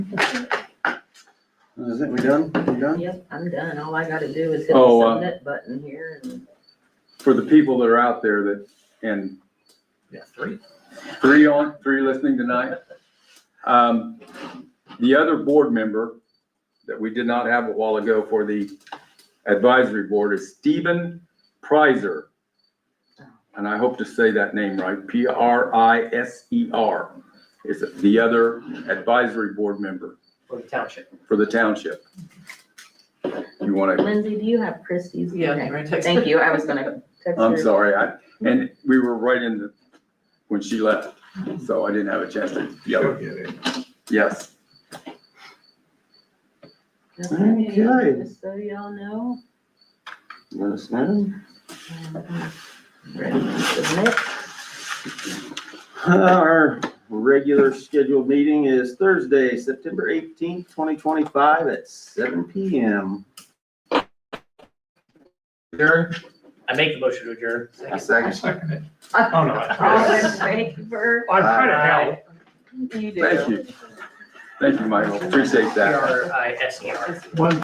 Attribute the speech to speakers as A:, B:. A: Is it, we done? We done?
B: Yep, I'm done. All I gotta do is hit the
C: Oh, uh,
B: submit button here and
C: For the people that are out there that, and
D: Yeah, three.
C: three on, three listening tonight. Um, the other board member that we did not have a while ago for the advisory board is Stephen Prizer. And I hope to say that name right, P R I S E R is the other advisory board member
D: For the township.
C: for the township. You want to,
B: Lindsay, do you have Christie's?
E: Yeah,
B: Okay.
E: right, text.
B: Thank you. I was gonna text her.
C: I'm sorry, I, and we were right in the, when she left, so I didn't have a chance to yell. Yes.
B: Okay,
A: Okay.
B: Just so y'all know.
A: Let us know.
B: um, Ready to submit.
A: Our regular scheduled meeting is Thursday, September eighteenth, twenty twenty-five at seven P M.
D: Adjourn. I make the motion to adjourn.
A: A second.
F: Second it.
B: All
F: Oh, no. I-
B: in favor?
F: I'm trying to help.
B: You do.
C: Thank you. Thank you, Michael. Appreciate
D: P
C: that.
D: R I S E R.
F: One